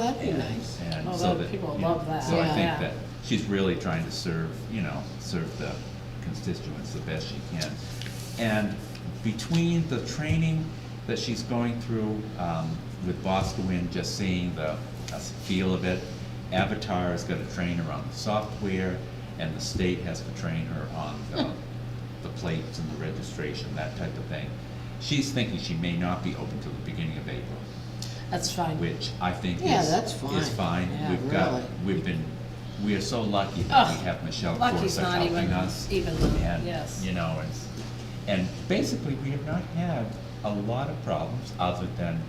That'd be nice. And Oh, so that- that, people you know, love that. So I Yeah. think that she's really trying to serve, you know, serve the constituents the best she can. And between the training that she's going through um, with Boscoon, just seeing the uh, feel of it, Avatar has got to train her on the software, and the state has to train her on Hmm. the, the plates and the registration, that type of thing. She's thinking she may not be open till the beginning of April That's fine. which I think Yeah, is, that's fine. is fine. Yeah, We've got, really. we've been, we are so lucky that we Ugh, have Michelle Lucky's Corsa not even, helping us. even, And, yes. you know, it's, and basically, we have not had a lot of problems other than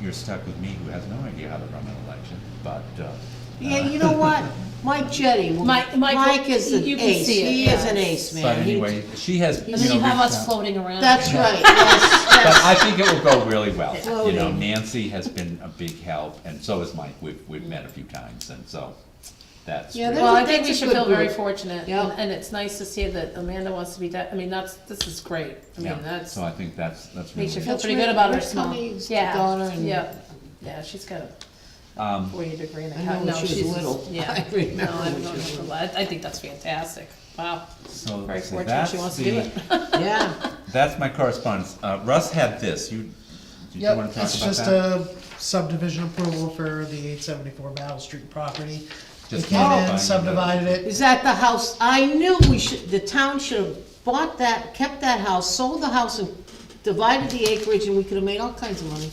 you're stuck with me who has no idea how to run an election, but, uh. Yeah, you know what? Mike Jetty, will- Mike- Mike will- Mike is an you can ace. see it, He is yeah. an ace, man. But He- anyway, she has, you And then you know, have reached us out. floating around. That's right, yes, But yes. I think it will go really well. You know, Floating. Nancy has been a big help, and so has Mike. We've, we've met a few times, and so that's. Yeah, really- Well, I That's a- think we that's a should good feel very group. fortunate, Yeah. and and it's nice to see that Amanda wants to be, de- I mean, that's, this is great. I mean, yeah. that's, So I think that's, that's makes you really. feel That's pretty Rick- good about her Rick small. Cummings' Yeah, daughter and- Yeah, yeah, she's got a Um, forty degree in I know when accounting. No, she was she's- little. Yeah. I remember No, when I've known she her was for a little. while. I I think that's fantastic. Wow. So Very so fortunate that's she wants to do the- it. Yeah, That's my correspondence. Uh, Russ had this. You, did you want to talk It's about just uh, that? a subdivision approval for the eight seventy-four Battle Street property. They Just came modifying in, the- subdivided it, is that the house? I knew we should, the town should have bought that, kept that house, sold the house and divided the acreage and we could have made all kinds of money.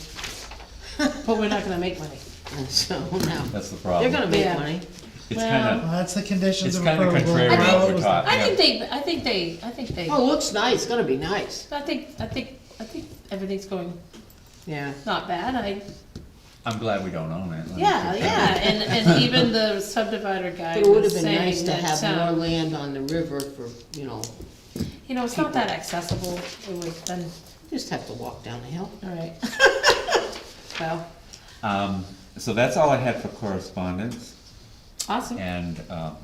But we're not gonna make money. And so now, That's the they're problem. gonna make Yeah. money. It's well, well, kind that's the of, conditions it's of kind approval. of contrary to I what think- we're taught. I yeah. think they, I think they, I think they, Oh, it looks nice, it's gonna be nice. I think, I think, I think everything's going Yeah. not bad. I, I'm glad we don't own it. Let me yeah, put yeah, that and, and even the subdivider guy But It would was have been nice saying to that, have more um, land on the river for, you know, you know, it's not that accessible. It would have been, just have to walk down the hill. all right. Well, in. Um, so that's all I had for correspondence, awesome. and, um,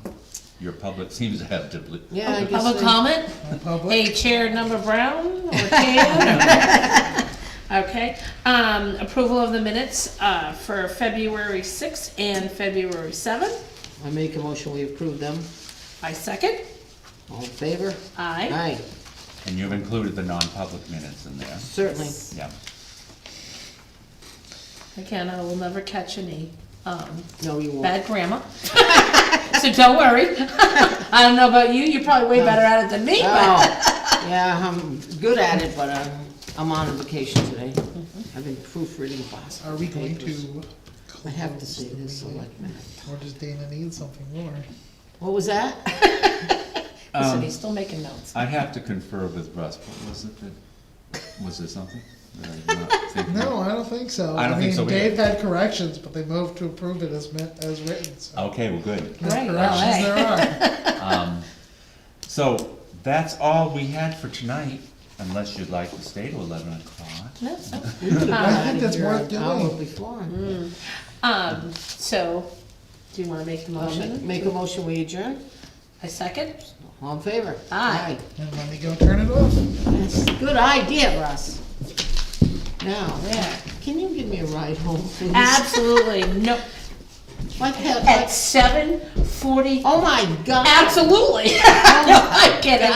your public seems to have deli- Yeah, I guess. Public they- comment? Public, A chair number brown or tan? Okay, um, approval of the minutes, uh, for February sixth and February seventh. I make a motion, we approve them. I second. All in favor? Aye. Aye, and you've included the non-public minutes in there, certainly. yeah. Again, I will never catch any, um, No, you won't. bad grammar. So don't worry. I don't know about you, you're probably way better at it than me, but. Oh, yeah, I'm good at it, but I'm, I'm on vacation today. Mm-hmm. I've been proofreading Boston. are we going papers. to? I have to say this, selectmen. Or does Dana need something more? What was that? Listen, Um, he's still making notes. I have to confer with Russ, but was it the, was there something that I'm not thinking of? No, I don't think so. I don't think so mean, either. Dave had corrections, but they moved to approve it as meant, as written, so. Okay, well, good. What Right, well, hey. Corrections there are. Um, So that's all we had for tonight, unless you'd like to stay to eleven o'clock. No, no. We could've been I think outta that's here worth an hour doing. Before. Mm-hmm. Um, so, do you wanna make the I'll ma- motion? Make a motion, we adjourn? I second? All in favor? Aye. And let me go turn it off. Aye. That's a good idea, Russ. Now, Yeah. can you give me a ride home, please? Absolutely, no, Like that, at like, seven forty, oh my God. absolutely. No, I'm kidding.